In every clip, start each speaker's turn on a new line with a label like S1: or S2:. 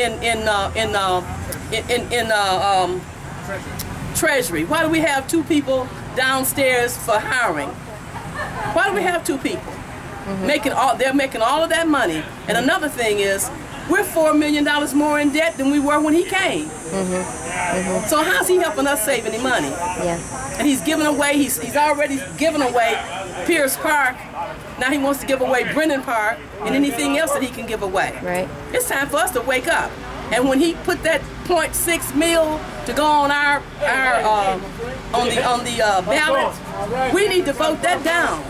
S1: in in uh, in uh, in in, in uh, um, treasury? Why do we have two people downstairs for hiring? Why do we have two people making all? They're making all of that money. And another thing is, we're four million dollars more in debt than we were when he came. So how's he helping us save any money?
S2: Yeah.
S1: and he's giving away. He's he's already given away Pierce Park. Now he wants to give away Brennan Park and anything else that he can give away.
S2: Right.
S1: It's time for us to wake up. And when he put that .6 mil to go on our our uh, on the on the uh, ballot, we need to vote that down.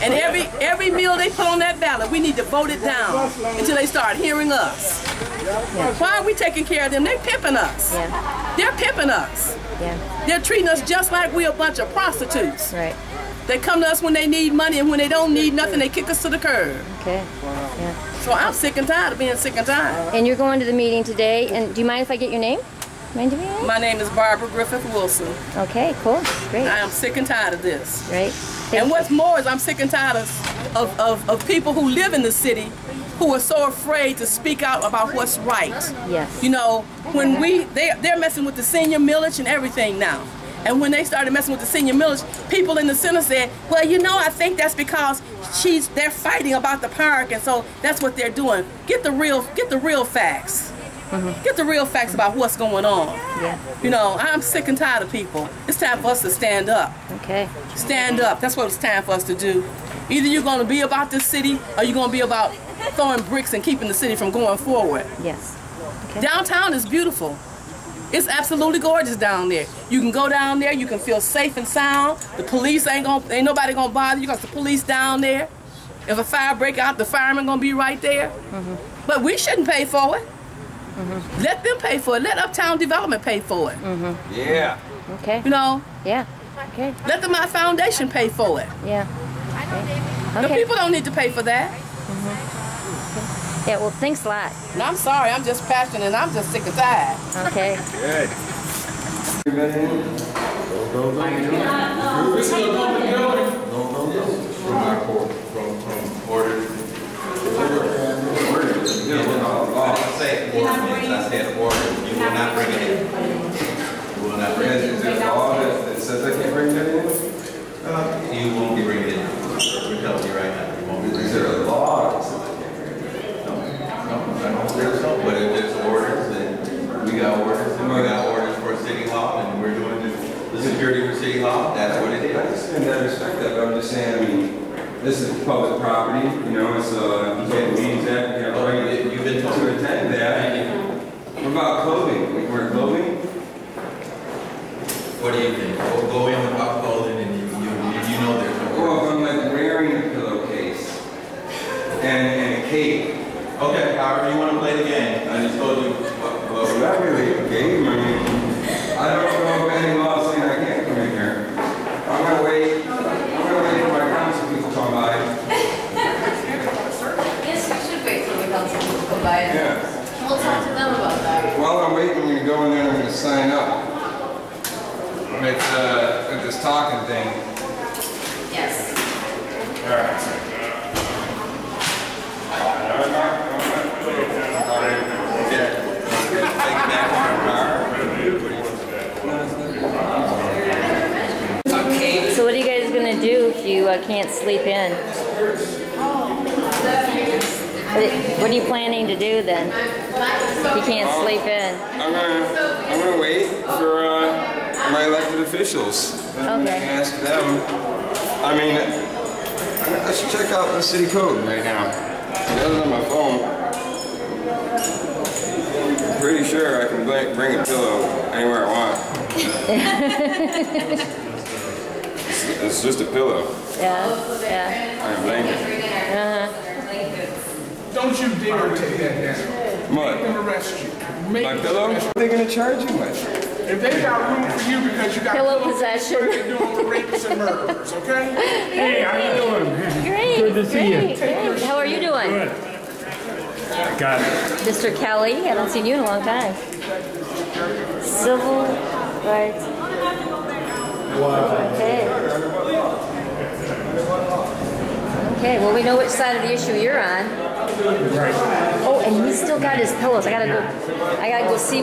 S1: And every every meal they put on that ballot, we need to vote it down until they start hearing us. Why are we taking care of them? They're pimping us.
S2: Yeah.
S1: They're pimping us.
S2: Yeah.
S1: They're treating us just like we're a bunch of prostitutes.
S2: Right.
S1: They come to us when they need money, and when they don't need nothing, they kick us to the curb.
S2: Okay. Yeah.
S1: So I'm sick and tired of being sick and tired.
S2: And you're going to the meeting today. And do you mind if I get your name? Mind if I get your name?
S1: My name is Barbara Griffith Wilson.
S2: Okay. Cool. Great.
S1: I am sick and tired of this.
S2: Right.
S1: And what's more is I'm sick and tired of, of, of, of people who live in the city who are so afraid to speak out about what's right.
S2: Yes.
S1: You know, when we they they're messing with the senior millage and everything now. And when they started messing with the senior millage, people in the center said, "Well, you know, I think that's because she's they're fighting about the park, and so that's what they're doing. Get the real get the real facts. Get the real facts about what's going on.
S2: Yeah.
S1: You know, I'm sick and tired of people. It's time for us to stand up.
S2: Okay.
S1: Stand up. That's what it's time for us to do. Either you're going to be about this city, or you're going to be about throwing bricks and keeping the city from going forward."
S2: Yes.
S1: Downtown is beautiful. It's absolutely gorgeous down there. You can go down there, you can feel safe and sound. The police ain't gonna, ain't nobody gonna bother you because the police down there. If a fire break out, the firemen gonna be right there. But we shouldn't pay for it. Let them pay for it. Let Uptown Development pay for it.
S3: Yeah.
S2: Okay.
S1: You know,
S2: Yeah. Okay.
S1: let the My Foundation pay for it.
S2: Yeah.
S1: The
S2: Okay.
S1: people don't need to pay for that.
S2: Yeah. Well, thanks a lot.
S1: And I'm sorry, I'm just passionate and I'm just sick and tired.
S2: Okay.
S3: Good.
S4: From, from order.
S3: I said ordinance, I said order, you will not bring it in. You will not bring it
S4: Is there a law that that says I can't bring that in?
S3: in. You won't bring it in. We're telling you right now, you won't bring
S4: Is
S3: it in.
S4: there a law that says I can't bring that
S3: No, no, I don't think so, but if there's orders, then we got orders, and we got orders for city law, and we're doing the- the security for city law, that's what it
S4: in? I
S3: is.
S4: understand that, I respect that, but I'm just saying, I mean, this is public property, you know, it's, uh, you can't leave that, you have a right
S3: You've been told.
S4: to attend that. What about clothing? We wear clothing?
S3: What do you think? Go- Go in without clothing, and you, you, you know there's no order.
S4: Well, if I'm like wearing a pillowcase and, and a cape,
S3: Okay, however you want to play the game, I just told you what, what
S4: Well,
S3: we're
S4: not really a game, I mean, I don't know of any law saying I can't come in here. I'm gonna wait, I'm gonna wait for my council people to come by.
S5: Yes, we should wait till the council people come by and
S4: Yeah.
S5: we'll talk to them about that.
S4: While I'm waiting, I'm gonna go in there and I'm gonna sign up. With, uh, with this talking thing.
S5: Yes.
S2: So what are you guys gonna do if you uh, can't sleep in? What- What are you planning to do then? If you can't sleep in.
S4: I'm gonna, I'm gonna wait for, uh, my elected officials. And
S2: Okay.
S4: ask them, I mean, I should check out the city code right now. It doesn't on my phone. I'm Pretty sure I can bl- bring a pillow anywhere I want. It's it's just a pillow
S2: Yeah. Yeah. Uh-huh.
S4: and a blanket.
S5: Bring in our, our blankets.
S6: Don't you dare take that down. They
S4: Mud.
S6: can arrest you.
S4: My pillow? What are they gonna charge you with?
S6: If they got room for you because you got
S2: Pillow
S6: pillows,
S2: possession.
S6: They're doing rapists and murderers, okay?
S7: Hey, how you doing?
S2: Great.
S7: Good to see you.
S2: great, Great. How are you doing,
S7: Good. Got it.
S2: Mr. Kelly? I haven't seen you in a long time. Civil rights. Okay. Okay. Well, we know which side of the issue you're on.
S7: Right.
S2: Oh, and he's still got his pillows. I gotta go. I gotta go see.